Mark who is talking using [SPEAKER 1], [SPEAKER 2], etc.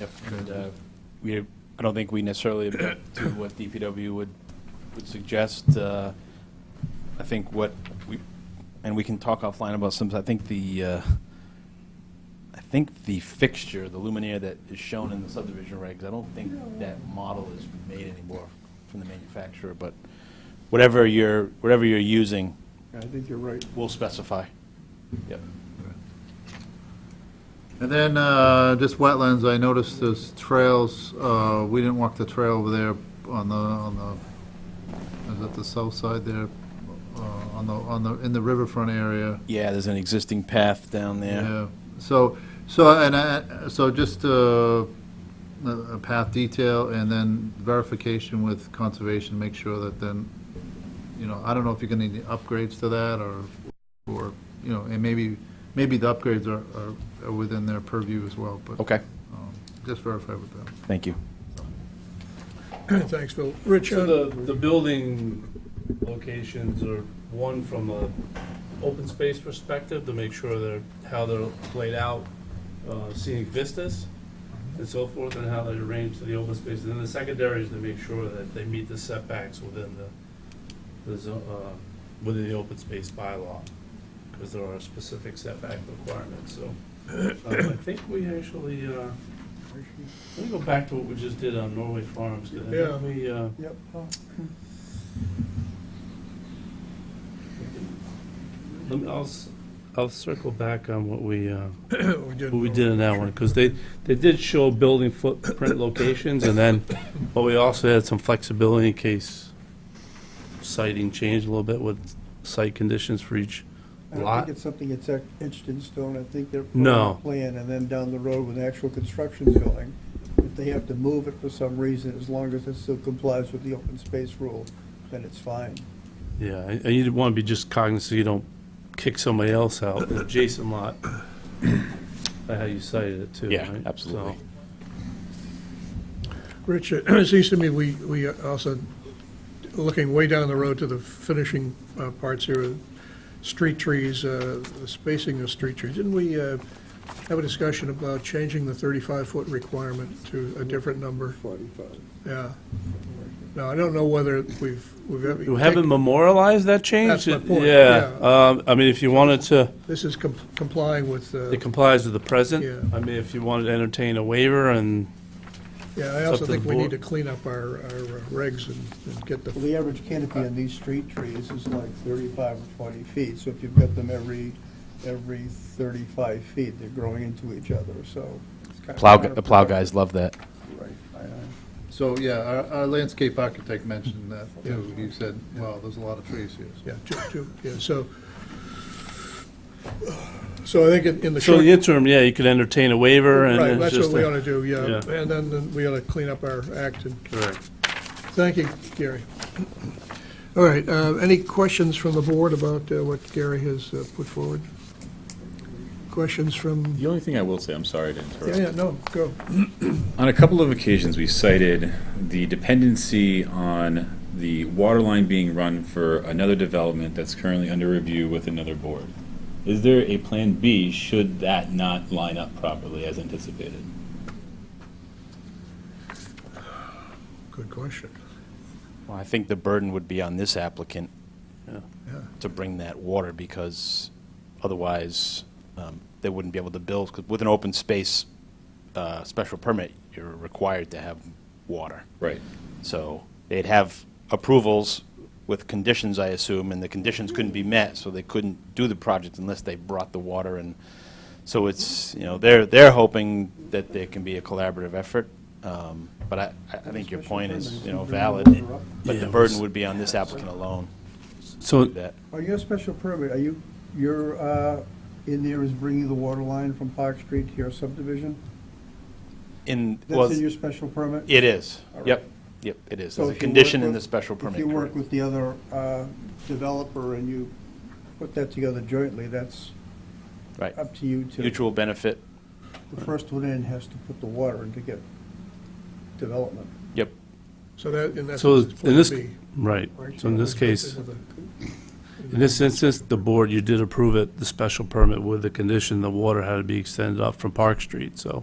[SPEAKER 1] Yep. And uh, we, I don't think we necessarily admit to what DPW would, would suggest. Uh, I think what we, and we can talk offline about some, I think the, uh, I think the fixture, the luminaire that is shown in the subdivision regs, I don't think that model is made anymore from the manufacturer, but whatever you're, whatever you're using,
[SPEAKER 2] I think you're right.
[SPEAKER 1] we'll specify. Yep.
[SPEAKER 3] And then, uh, just wetlands, I noticed there's trails, uh, we didn't walk the trail over there on the, on the, is it the south side there? Uh, on the, on the, in the riverfront area.
[SPEAKER 1] Yeah, there's an existing path down there.
[SPEAKER 3] Yeah, so, so, and I, so just, uh, a a path detail and then verification with conservation, make sure that then, you know, I don't know if you're gonna need upgrades to that or, or, you know, and maybe, maybe the upgrades are, are- are within their purview as well, but.
[SPEAKER 1] Okay,
[SPEAKER 3] um, Just verify with them.
[SPEAKER 1] thank you.
[SPEAKER 2] Thanks, Phil. Rich,
[SPEAKER 4] So
[SPEAKER 2] uh,
[SPEAKER 4] the, the building locations are, one, from a open space perspective, to make sure they're, how they're laid out, uh, scenic vistas and so forth, and how they're arranged to the open space. And then the secondary is to make sure that they meet the setbacks within the, the zo- uh, within the open space bylaw, because there are specific setback requirements, so. uh, I think we actually, uh, let me go back to what we just did on Norway Farms, 'cause I think
[SPEAKER 2] Yeah.
[SPEAKER 4] we, uh,
[SPEAKER 2] yep,
[SPEAKER 4] Let me, I'll, s- I'll circle back on what we, uh,
[SPEAKER 2] we did.
[SPEAKER 4] what we did in that one, because they, they did show building footprint locations, and then, but we also had some flexibility in case siting changed a little bit with site conditions for each
[SPEAKER 5] I don't
[SPEAKER 4] lot.
[SPEAKER 5] think it's something that's ec- etched in stone. I think they're. putting
[SPEAKER 4] No.
[SPEAKER 5] a Plan, and then down the road when actual construction's going, if they have to move it for some reason, as long as it still complies with the open space rule, then it's fine.
[SPEAKER 4] Yeah, and- and you want to be just cognizant, you don't kick somebody else out, the adjacent lot, by how you cited it too,
[SPEAKER 1] Yeah,
[SPEAKER 4] right?
[SPEAKER 1] absolutely.
[SPEAKER 2] Rich, it seems to me we, we are also, looking way down the road to the finishing uh, parts here, uh, street trees, uh, the spacing of street trees. Didn't we uh, have a discussion about changing the 35-foot requirement to a different number?
[SPEAKER 5] Forty-five.
[SPEAKER 2] Yeah. Now, I don't know whether we've, we've. ever-
[SPEAKER 4] So, You haven't memorialized that change?
[SPEAKER 2] That's my point,
[SPEAKER 4] Yeah, um, I mean, if you wanted to.
[SPEAKER 2] This is com- complying with, uh,
[SPEAKER 4] It complies with the present.
[SPEAKER 2] Yeah.
[SPEAKER 4] I mean, if you wanted to entertain a waiver and,
[SPEAKER 2] yeah, I
[SPEAKER 4] it's up
[SPEAKER 2] also
[SPEAKER 4] to
[SPEAKER 2] think
[SPEAKER 4] the
[SPEAKER 2] we need
[SPEAKER 4] board.
[SPEAKER 2] to clean up our, our uh, regs and and get the
[SPEAKER 5] Well, the average canopy on these street trees is like thirty-five or forty feet, so if you've got them every, every thirty-five feet, they're growing into each other, so. it's kind of
[SPEAKER 1] Plow, gu- the
[SPEAKER 5] counterproductive.
[SPEAKER 1] plow guys love that.
[SPEAKER 5] Right, I know.
[SPEAKER 3] So, yeah, our, our landscape architect mentioned that, too. He said, wow, there's a lot of trees here.
[SPEAKER 2] Yeah, two, two, yeah, so, so I think in- in the
[SPEAKER 4] so
[SPEAKER 2] short.
[SPEAKER 4] in the interim, yeah, you could entertain a waiver and
[SPEAKER 2] Right,
[SPEAKER 4] then it's
[SPEAKER 2] that's what
[SPEAKER 4] just.
[SPEAKER 2] we
[SPEAKER 4] a-
[SPEAKER 2] ought to do, yeah,
[SPEAKER 4] yeah.
[SPEAKER 2] and then then we ought to clean up our act, and,
[SPEAKER 4] Correct.
[SPEAKER 2] thank you, Gary. All right, uh, any questions from the board about uh, what Gary has uh, put forward? Questions from,
[SPEAKER 6] The only thing I will say, I'm sorry to interrupt.
[SPEAKER 2] yeah, yeah, no, go.
[SPEAKER 6] On a couple of occasions, we cited the dependency on the water line being run for another development that's currently under review with another board. Is there a plan B should that not line up properly as anticipated?
[SPEAKER 2] Good question.
[SPEAKER 1] Well, I think the burden would be on this applicant
[SPEAKER 4] Yeah.
[SPEAKER 2] Yeah.
[SPEAKER 1] to bring that water, because otherwise, um, they wouldn't be able to build, 'cause with an open space uh, special permit, you're required to have water.
[SPEAKER 6] Right.
[SPEAKER 1] So they'd have approvals with conditions, I assume, and the conditions couldn't be met, so they couldn't do the project unless they brought the water in. So it's, you know, they're, they're hoping that there can be a collaborative effort, um, but I, I I think your point is, you know, valid, but the
[SPEAKER 4] Yeah,
[SPEAKER 1] burden would be on this applicant alone to
[SPEAKER 4] So,
[SPEAKER 1] do that.
[SPEAKER 5] Are you a special permit, are you, you're, uh, in there is bringing the water line from Park Street to your subdivision?
[SPEAKER 1] In, well,
[SPEAKER 5] That's in your special permit?
[SPEAKER 1] it is,
[SPEAKER 5] All
[SPEAKER 1] yep,
[SPEAKER 5] right.
[SPEAKER 1] yep, it is,
[SPEAKER 5] So
[SPEAKER 1] there's a
[SPEAKER 5] if you work
[SPEAKER 1] condition in
[SPEAKER 5] with-
[SPEAKER 1] the special permit.
[SPEAKER 5] If you work
[SPEAKER 1] correct.
[SPEAKER 5] with the other, uh, developer and you put that together jointly, that's
[SPEAKER 1] Right,
[SPEAKER 5] up to you to.
[SPEAKER 1] mutual benefit,
[SPEAKER 5] The first one in has to put the water in to get development.
[SPEAKER 1] yep,
[SPEAKER 2] So that, and that's.
[SPEAKER 4] so
[SPEAKER 2] what
[SPEAKER 4] in this,
[SPEAKER 2] Plan B.
[SPEAKER 4] right, so in this case, in this instance, the board, you did approve it, the special permit with the condition the water had to be extended up from Park Street, so